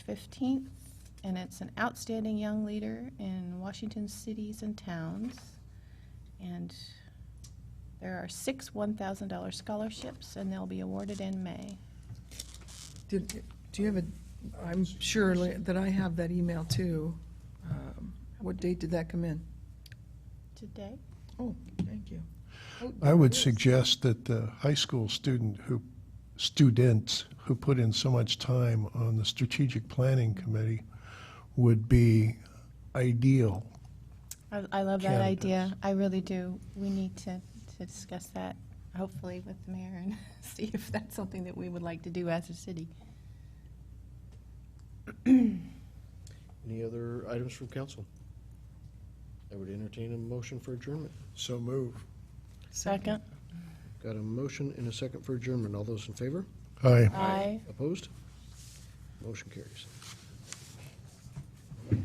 15th, and it's an outstanding young leader in Washington cities and towns. And there are six $1,000 scholarships, and they'll be awarded in May. Did, do you have a, I'm sure li- that I have that email too. Um, What date did that come in? Today? Oh, thank you. Oh, I would yes. suggest that the high school student who, students who put in so much time on the strategic planning committee would be ideal. I I love that Candidates. idea. I really do. We need to to discuss that, hopefully, with the mayor and see if that's something that we would like to do as a city. Any other items from council? I would entertain a motion for adjournment. So move. Second? Got a motion and a second for adjournment. All those in favor? Aye. Aye. Opposed? Motion carries.